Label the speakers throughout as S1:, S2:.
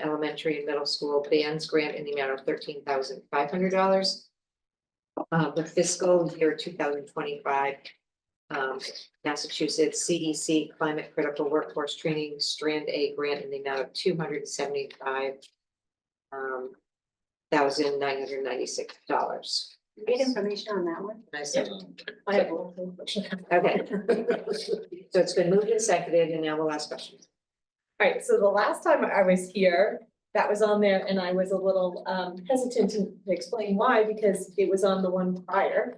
S1: elementary and middle school bands grant in the amount of thirteen thousand five hundred dollars. Uh, the fiscal year two thousand twenty-five, um, Massachusetts CDC Climate Critical Workforce Training Strand A grant in the amount of two hundred and seventy-five um, thousand nine hundred ninety-six dollars.
S2: Get information on that one.
S1: I said,
S2: I have one thing.
S1: okay, so it's been moved and seconded, and now we'll ask questions.
S3: Alright, so the last time I was here, that was on there and I was a little um hesitant to explain why because it was on the one prior.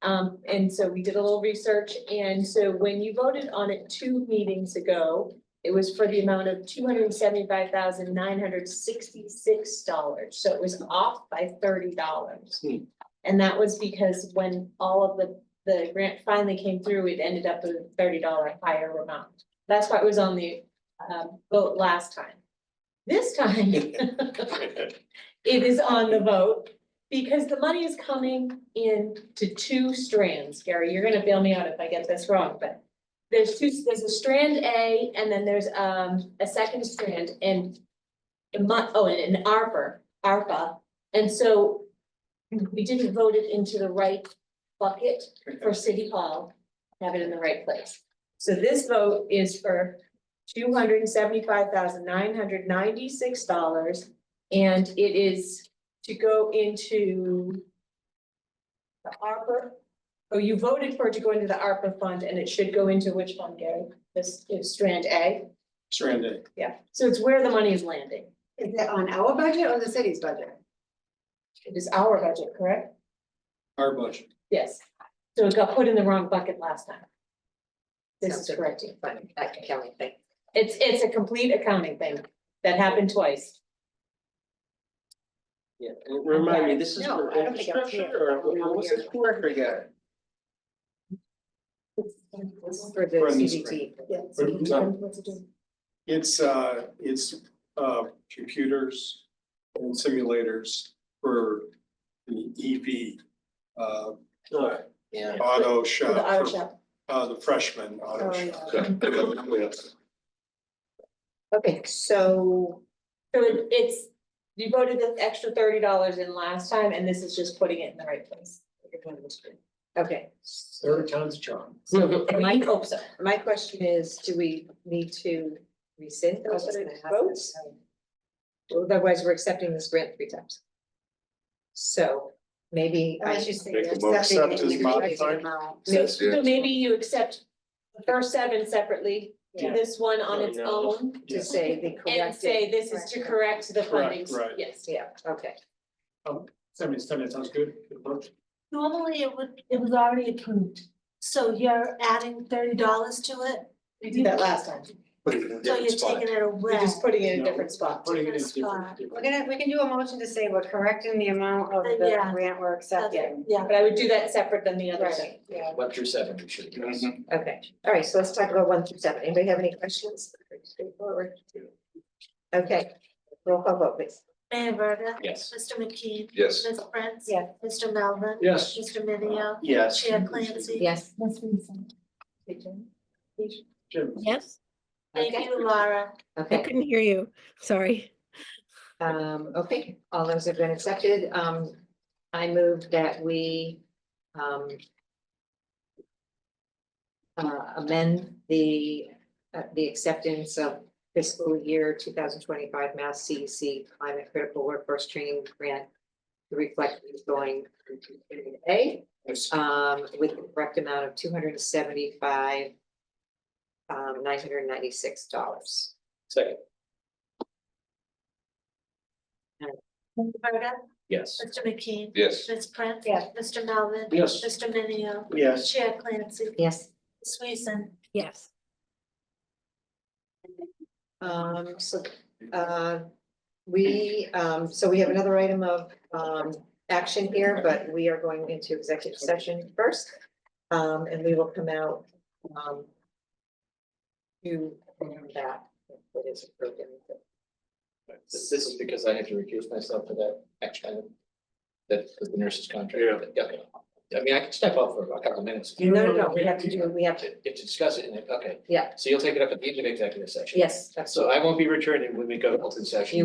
S3: Um, and so we did a little research and so when you voted on it two meetings ago, it was for the amount of two hundred and seventy-five thousand nine hundred sixty-six dollars. So it was off by thirty dollars.
S4: Hmm.
S3: And that was because when all of the the grant finally came through, it ended up with a thirty dollar higher amount. That's why it was on the um vote last time. This time, it is on the vote because the money is coming in to two strands. Gary, you're gonna bail me out if I get this wrong, but there's two, there's a strand A and then there's um a second strand and a mon- oh, and an ARPA, ARPA. And so we didn't vote it into the right bucket for City Hall, have it in the right place. So this vote is for two hundred and seventy-five thousand nine hundred ninety-six dollars. And it is to go into the ARPA. Oh, you voted for it to go into the ARPA fund and it should go into which fund, Gary? This is Strand A?
S4: Stranded.
S3: Yeah. So it's where the money is landing.
S2: Is that on our budget or the city's budget?
S3: It is our budget, correct?
S4: our budget.
S3: Yes. So it got put in the wrong bucket last time. This
S1: Sounds
S3: is
S1: like-
S3: correct.
S1: Fine, that can count, I think.
S3: It's, it's a complete accounting thing that happened twice.
S4: Yeah, and remind me, this is
S1: No,
S4: for
S1: I don't think I've seen
S4: infrastructure or what what was it for again?
S1: For the E
S4: For the
S1: CDT.
S5: It's uh, it's uh, computers and simulators for the EV uh,
S4: Alright, Oh, yeah.
S5: auto
S3: For the auto
S5: shop, for,
S3: shop.
S5: uh, the freshman auto
S3: Oh,
S5: shop.
S3: yeah.
S1: Okay, so
S3: So it- it's, you voted the extra thirty dollars in last time and this is just putting it in the right place.
S1: Okay,
S6: Third time's a charm.
S3: I hope so.
S1: my question is, do we need to rescind those votes? Otherwise, we're accepting this grant three times. So maybe I should,
S2: say.
S7: Make a
S2: yes.
S7: motion.
S2: Accepting
S5: Accept as
S2: the corrected
S5: modified.
S2: amount.
S3: May-
S7: Yes, yes.
S3: So maybe you accept the first seven separately,
S4: Yeah.
S3: this one on
S4: Yeah.
S3: its own,
S5: Yeah.
S1: to say the corrected.
S3: and say this is to correct the
S5: Correct,
S3: funding,
S5: right.
S3: yes.
S1: Yeah, okay.
S5: Seventy, seventy, sounds good. Good approach.
S8: Normally it would, it was already approved, so you're adding thirty dollars to it,
S3: We did that last time,
S8: so you're taking it away.
S3: we're just putting it in a
S5: No.
S3: different spot.
S5: Putting it in
S8: Different
S5: different,
S8: spot.
S2: We're
S5: different.
S2: gonna, we can do a motion to say we're correcting the amount of the
S8: Uh, Yeah.
S2: grant we're
S8: That's-
S2: accepting.
S8: Yeah,
S3: But I would do that separate than the other thing.
S1: Right, yeah,
S6: One through seven, we should. address.
S1: okay. All right, so let's talk about one through seven. Anybody have any questions? Pretty Straightforward. Okay, roll call vote, please.
S8: Mayor Verda,
S6: Yes.
S8: Mr. McKee,
S7: Yes.
S8: Ms. Prince.
S1: Yeah.
S8: Mr. Melvin.
S4: Yes.
S8: Mr. Minio,
S4: Yes.
S8: Chair Clancy.
S1: Yes.
S8: Ms. Reason.
S4: Jim.
S9: Yes,
S8: Thank you, Laura.
S9: I
S1: Okay.
S9: couldn't hear you. Sorry.
S1: Um, okay, all those have been accepted. Um, I move that we, um, uh, amend the, uh, the acceptance of fiscal year two thousand twenty-five Mass CEC Climate Critical Workforce Training Grant to reflect who's going into period A,
S4: Yes.
S1: um, with the correct amount of two hundred and seventy-five, um, nine hundred and ninety-six dollars.
S4: Second,
S8: Mayor Verda,
S6: Yes.
S8: Mr. McKee,
S7: Yes.
S8: Ms. Prince.
S2: Yeah.
S8: Mr. Melvin.
S4: Yes.
S8: Mr. Minio,
S4: yes.
S8: Chair Clancy,
S1: Yes.
S8: Ms. Reason.
S9: Yes.
S1: Um, so, uh, we, um, so we have another item of, um, action here, but we are going into executive session first. Um, and we will come out, um, to that, that is approved.
S6: This this is because I had to recuse myself for that action item. That was the nurse's contract. Yeah. okay. I mean, I can step off for a couple of minutes.
S1: No, no, no, we have to do, we have to,
S6: You have to discuss it in it, okay.
S1: Yeah.
S6: So you'll take it up at the end of executive session.
S1: yes, uh, that's
S6: So I won't be returning when we go to open session.
S1: You